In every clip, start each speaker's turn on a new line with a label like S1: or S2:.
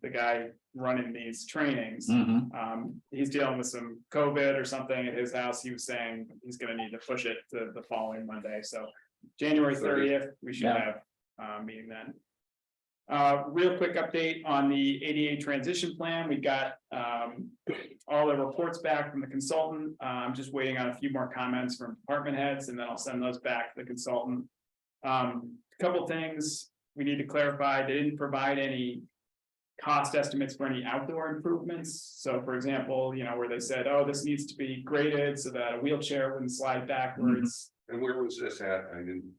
S1: the guy running these trainings.
S2: Mhm.
S1: Um, he's dealing with some COVID or something at his house. He was saying he's gonna need to push it to the following Monday, so. January thirtieth, we should have, uh, meeting then. Uh, real quick update on the ADA transition plan. We got, um, all the reports back from the consultant. Uh, I'm just waiting on a few more comments from department heads and then I'll send those back to the consultant. Um, couple things we need to clarify. They didn't provide any cost estimates for any outdoor improvements. So for example, you know, where they said, oh, this needs to be graded so that a wheelchair wouldn't slide backwards.
S3: And where was this at? I didn't.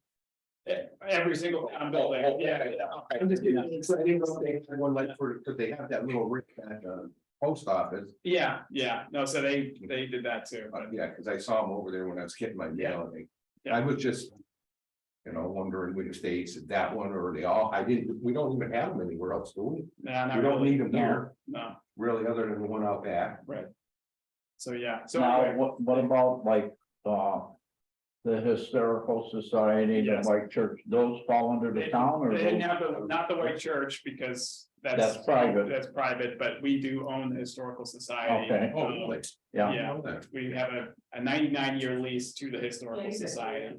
S1: E- Every single town building,
S3: Oh, oh,
S1: yeah.
S3: okay.
S1: I'm just kidding.
S3: So I didn't know if they had one like for, because they have that little rick at the post office,
S1: Yeah, yeah, no, so they, they did that too,
S3: but
S1: but
S3: yeah, because I saw them over there when I was getting my mail. and they- I was just. You know, wondering which states, is that one or they all, I didn't, we don't even have them anywhere else, do we?
S1: nah, not
S3: We don't
S1: really.
S3: need them
S1: No,
S3: here,
S1: No,
S3: really, other than the one out back.
S1: so yeah, so
S2: Now,
S1: anyway,
S2: what, what about like, uh, the historical society, the
S1: Yes.
S2: white church, those fall under
S1: They-
S2: the town
S1: they
S2: or?
S1: didn't
S2: those-
S1: have the, not the white church because that's.
S2: That's private.
S1: That's private, but we do own the historical society.
S2: Okay.
S3: Oh,
S1: Um,
S3: really?
S2: Yeah,
S1: Yeah,
S3: Oh, that-
S1: we have a, a ninety-nine year lease to the historical
S4: Yeah, you said-
S1: society.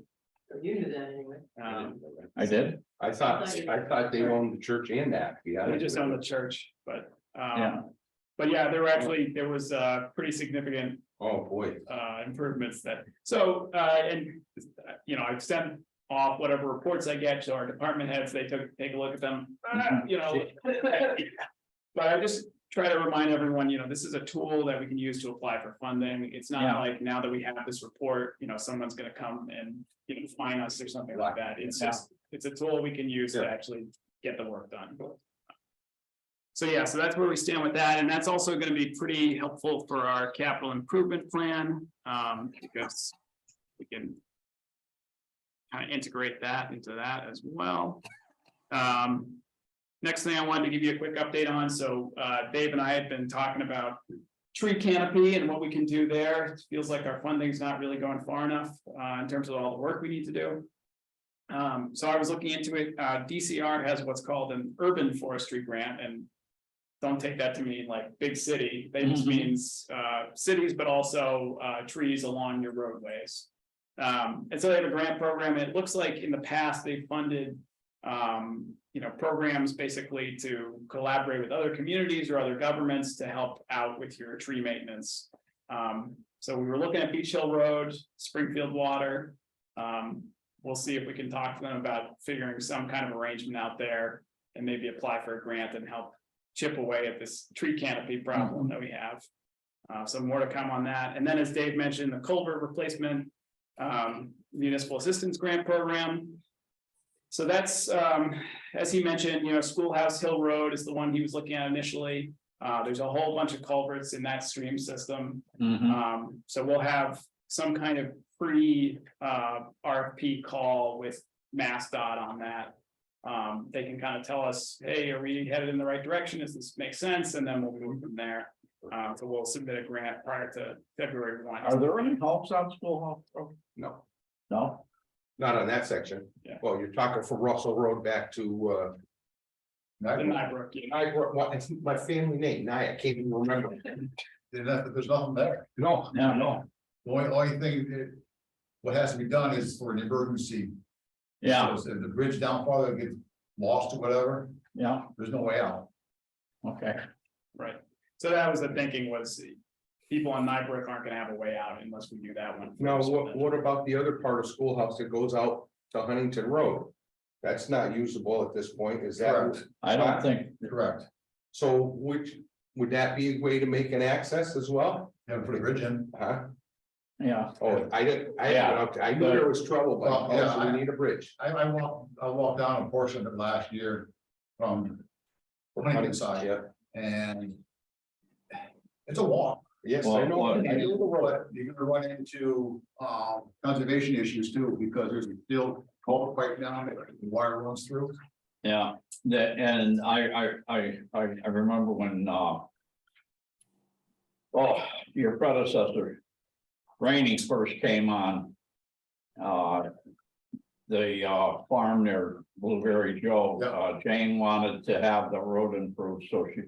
S4: You knew that anyway.
S3: I
S1: Um,
S3: didn't know that.
S2: I did.
S3: I thought, I thought they owned the church and that, yeah.
S1: We just own the church, but,
S2: Yeah.
S1: um, but yeah, there were actually, there was, uh, pretty significant
S3: Oh, boy.
S1: uh, improvements that, so, uh, and, uh, you know, I've sent off whatever reports I get to our department heads, they took, take a look at them, ah, you know. But I just try to remind everyone, you know, this is a tool that we can use to apply for funding. It's not
S2: Yeah.
S1: like now that we have this report, you know, someone's gonna come and, you know, fine us or something like that. It's
S2: Yeah.
S1: just, it's a tool we can use to
S3: Yeah.
S1: actually get the work done. So yeah, so that's where we stand with that, and that's also gonna be pretty helpful for our capital improvement plan, um, because we can kind of integrate that into that as well. Um, next thing I wanted to give you a quick update on, so, uh, Dave and I have been talking about tree canopy and what we can do there. It Feels like our funding's not really going far enough, uh, in terms of all the work we need to do. Um, so I was looking into it, uh, DCR has what's called an urban forestry grant and. Don't take that to mean like big city, that just
S2: Mhm.
S1: means, uh, cities, but also, uh, trees along your roadways. Um, and so they have a grant program, and it looks like in the past they funded. Um, you know, programs basically to collaborate with other communities or other governments to help out with your tree maintenance. Um, so we were looking at Beach Hill Road, Springfield Water, um, we'll see if we can talk to them about figuring some kind of arrangement out there. And maybe apply for a grant and help chip away at this tree canopy problem that we have. Uh, so more to come on that. And then as Dave mentioned, the culvert replacement, um, municipal assistance grant program. So that's, um, as he mentioned, you know, Schoolhouse Hill Road is the one he was looking at initially. Uh, there's a whole bunch of culverts in that stream system.
S2: Mhm.
S1: Um, so we'll have some kind of pre, uh, RFP call with Mass dot on that. Um, they can kind of tell us, hey, are we headed in the right direction? Does this make sense? And then we'll move from there. Uh, so we'll submit a grant prior to February one.
S2: Are there any helps on school? hall?
S3: No,
S2: No?
S3: not on that section.
S1: Yeah.
S3: Well, you're talking from Russell Road back to, uh.
S1: The Nybrook, you know,
S3: Nyack, what, it's my family name, Nye, I can't even remember.
S5: There's nothing, there's nothing there.
S3: No,
S2: No, no.
S5: The only, only thing that. What has to be done is for an emergency.
S2: Yeah,
S5: So If the bridge down farther gets lost or whatever,
S2: yeah,
S5: there's no way out.
S2: okay.
S1: right? So that was the thinking was people on Nybrook aren't gonna have a way out unless we do that one.
S3: now,
S1: first.
S3: what, what about the other part of schoolhouse that goes out to Huntington Road? That's not usable at this point, is that,
S5: Correct.
S2: I don't think,
S5: Correct.
S3: so which, would that be a way to make an access as well?
S5: Never put a bridge in.
S3: Huh?
S2: yeah,
S3: Oh, I didn't, I, didn't- I knew there was trouble, but
S5: Well, yeah,
S3: also we need a bridge.
S5: I, I walked, I walked down a portion of it last year from Huntington side
S3: Yeah,
S5: and. It's a walk.
S3: yes, I know.
S2: Well,
S5: I do, but You're gonna run into, um, conservation issues too, because there's still culvert pipe down, there, wire runs through.
S2: yeah, that, and I, I, I, I, I remember when, uh. Oh, your predecessor, Rainey first came on. Uh. The, uh, farm near Blueberry Joe,
S5: Yeah.
S2: uh, Jane wanted to have the road improved, so she